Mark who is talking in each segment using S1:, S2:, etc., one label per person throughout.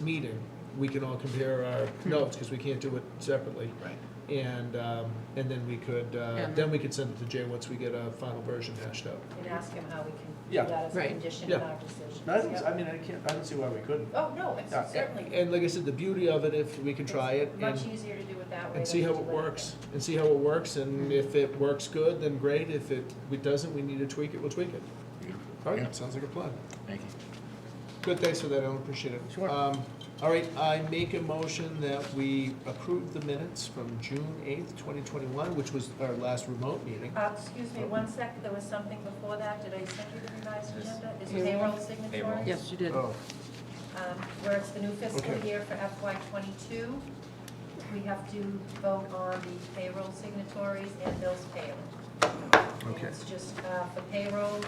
S1: meeting, we can all compare our notes, because we can't do it separately.
S2: Right.
S1: And, um, and then we could, uh,
S3: And-
S1: then we could send it to Jay once we get a final version hashed out.
S4: and ask him how we can do
S2: Yeah.
S4: that as a
S3: Right.
S4: condition in
S1: Yeah.
S4: our decision.
S2: No, I don't, I mean, I can't, I don't see why we couldn't.
S4: Oh, no, it's
S2: Yeah.
S4: certainly.
S1: And like I said, the beauty of it, if we can try it
S4: It's Much
S1: and,
S4: easier to do it that way.
S1: and see
S4: than
S1: how
S4: to
S1: it
S4: do
S1: works, and see how it works, and if it works good, then great, if it, it doesn't, we need to tweak it, we'll tweak it. All
S5: Yeah.
S1: right, sounds like a plan.
S5: Thank you.
S1: Good, thanks for that, Ellen, appreciate it.
S2: Sure.
S1: Um, All right, I make a motion that we approve the minutes from June eighth, twenty twenty-one, which was our last remote meeting.
S4: Uh, Excuse me, one sec, there was something before that. Did I send you the revised
S5: Yes.
S4: agenda? Is
S3: Yeah.
S4: payroll signatory?
S5: Payroll.
S3: Yes, you did.
S1: Oh,
S4: Um, Where it's the new fiscal
S1: Okay.
S4: year for FY '22, we have to vote on the payroll signatories and bills payable. And
S1: Okay.
S4: It's just uh, for payroll,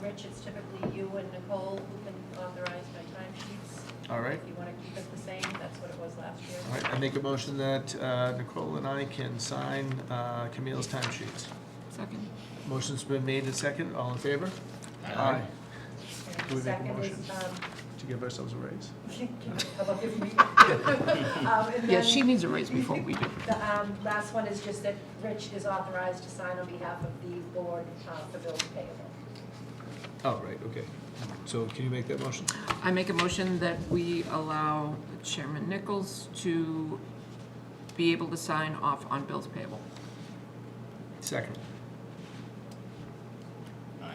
S4: Rich, it's typically you and Nicole who can authorize my timesheets.
S1: all right.
S4: If you want to keep it the same, that's what it was last year.
S1: All right, I make a motion that uh, Nicole and I can sign uh, Camille's time sheets.
S3: Second.
S1: Motion's been made and second, all in favor?
S4: And
S1: Do we make a
S4: second is,
S1: motion?
S4: um,
S1: To give ourselves a raise.
S4: How about if we- Um, and
S3: Yeah,
S4: then
S3: she needs a raise before we do.
S4: The um, last one is just that Rich is authorized to sign on behalf of the board uh, for bills payable.
S1: Oh, right, okay. So can you make that motion?
S3: I make a motion that we allow Chairman Nichols to be able to sign off on bills payable.
S1: Second.
S5: Aye.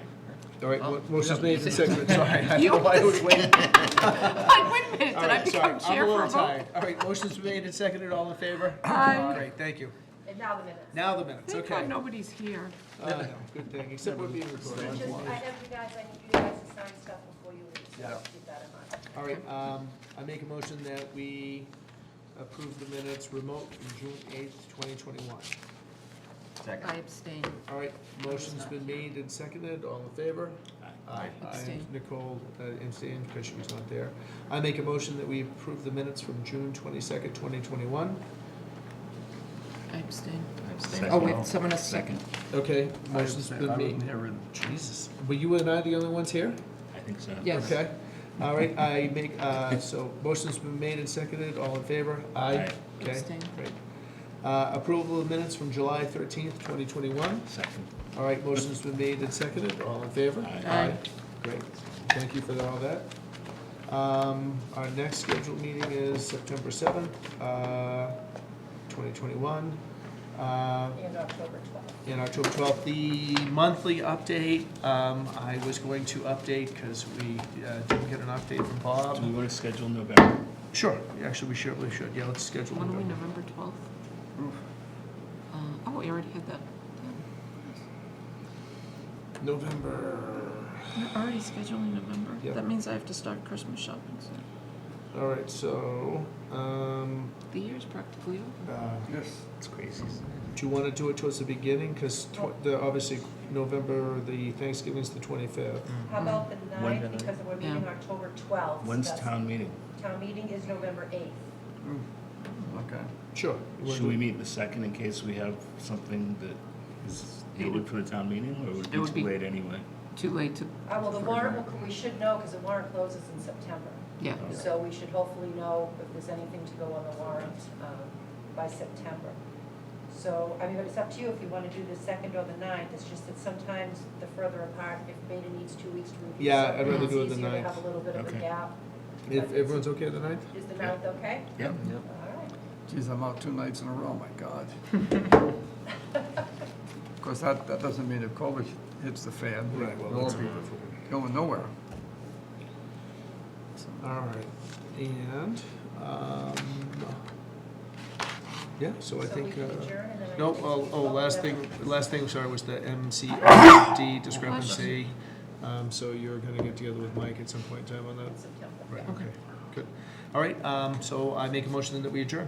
S1: All right, mo-
S5: Oh.
S1: motion's made and seconded, sorry. I don't know
S3: You-
S1: why I was waiting.
S3: Like, wait a minute, did
S1: All
S3: I
S1: right, sorry,
S3: become
S1: I'm
S3: chair
S1: a
S3: for a
S1: little
S3: vote?
S1: tired. All right, motion's made and seconded, all in favor?
S3: Aye.
S1: Great, thank you.
S4: And now the minutes.
S1: Now the minutes,
S3: Thank
S1: okay.
S3: God nobody's here.
S1: I know, Good thing, except we're being
S4: So
S1: recorded.
S4: just, I have you guys, I need you guys to sign stuff before you leave, so
S1: Yeah.
S4: keep that in mind.
S1: All right, um, I make a motion that we approve the minutes remote from June eighth, twenty twenty-one.
S5: Second.
S3: I abstain.
S1: All right, motion's been made and seconded, all in favor? Aye.
S3: Abstain.
S1: Nicole, uh, abstained, because she was not there. I make a motion that we approve the minutes from June twenty-second, twenty twenty-one.
S3: I abstain.
S5: Abstain.
S3: Oh, wait, someone has second.
S1: Okay,
S2: I
S1: motion's
S2: was- I
S1: been
S2: was
S1: made.
S2: never in-
S1: Jesus, were you and I the only ones here?
S5: I think so.
S3: Yes.
S1: Okay, all right, I make, uh, so motion's been made and seconded, all in favor?
S5: Aye.
S1: Okay,
S3: Abstain.
S1: great. Uh, Approval of minutes from July thirteenth, twenty twenty-one.
S5: Second.
S1: All right, motion's been made and seconded, all in favor?
S5: Aye.
S3: Aye.
S1: Great, thank you for all that. Um, Our next scheduled meeting is September seventh, uh, twenty twenty-one. Uh,
S4: And October 12th.
S1: In October 12th, the monthly update, um, I was going to update because we uh, didn't get an update from
S5: Do
S1: Bob.
S5: we want to schedule November?
S1: Sure, actually, we should, we should, yeah, let's schedule.
S3: When are we,
S1: November.
S3: November 12th? Uh, Oh, we already had that.
S1: November,
S3: We're already scheduling November.
S1: Yeah.
S3: That means I have to start Christmas shopping soon.
S1: all right, so, um,
S3: The year's practically over.
S1: uh,
S5: Yes. It's crazy.
S1: do you want to do it towards the beginning? Because the, obviously, November, the Thanksgiving's the 25th.
S4: How about the
S5: When the
S4: 9th, because we're meeting
S3: Yeah.
S4: October 12th. so
S5: When's
S4: that's-
S5: town meeting?
S4: Town meeting is November Uh, 8th.
S1: Okay. Sure. You wanna
S5: Should we
S1: do-
S5: meet the second in case we have something that is needed for the town meeting, or would
S3: It would
S5: it be
S3: be-
S5: too late anyway?
S3: Too late to,
S4: Uh, Well, the
S3: For
S4: warrant,
S3: November.
S4: will- we should know, because the warrant closes in September.
S3: yeah.
S5: Okay.
S4: So we should hopefully know if there's anything to go on the warrant um, by September. So, I mean, but it's up to you if you want to do the second or the ninth. It's just that sometimes the further apart, if Beta needs two weeks to review.
S1: Yeah, I'd
S4: something,
S1: do
S3: rather
S1: it the
S4: It's easier to
S1: ninth.
S4: have a little bit of a
S5: Okay.
S4: gap.
S1: If everyone's okay with the 9th?
S4: Is the ninth okay?
S5: Yep.
S4: All right.
S6: Geez, I'm out two nights in a row, my God. Of course, that, that doesn't mean if COVID hits the fan, we'll all be going nowhere.
S1: All right, and, um, yeah, so I think,
S4: So we
S1: uh,
S4: can adjourn and then I.
S1: no,
S4: think
S1: oh,
S4: we
S1: oh,
S4: vote
S1: last
S4: whatever.
S1: thing, last thing, sorry, was the MCD discrepancy. Um, so you're gonna get together with Mike at some point in time on that?
S4: In September.
S1: Right, okay, good. All right, um, so I make a motion that we adjourn.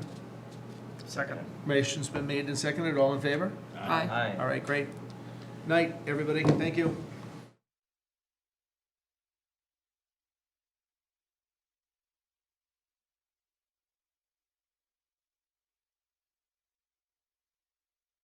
S6: Second.
S1: Motion's been made and seconded, all in favor?
S3: Aye.
S1: All right, great. Night, everybody, thank you.